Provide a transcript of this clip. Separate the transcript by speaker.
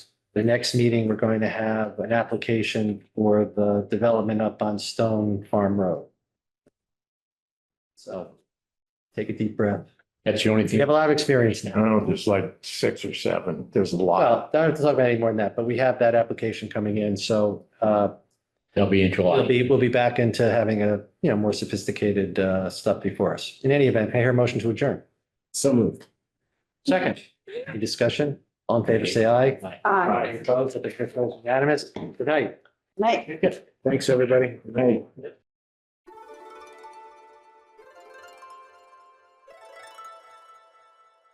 Speaker 1: The next meeting, we're going to have an application for the development up on Stone Farm Road. So take a deep breath.
Speaker 2: That's the only
Speaker 1: You
Speaker 2: thing.
Speaker 1: have a lot of experience
Speaker 2: I
Speaker 1: now.
Speaker 2: don't know, there's like six or seven. There's a lot.
Speaker 1: Well, I don't have to talk about any more than that, but we have that application coming in. So uh,
Speaker 2: They'll be in
Speaker 1: we'll
Speaker 2: July.
Speaker 1: be, we'll be back into having a, you know, more sophisticated uh, stuff before us. In any event, I hear a motion to adjourn.
Speaker 2: So moved.
Speaker 1: Second. Any discussion? All in favor, say aye.
Speaker 3: Aye.
Speaker 1: Opposed, I think that's unanimous. Good night.
Speaker 3: Night.
Speaker 2: Thanks, everybody. Good night.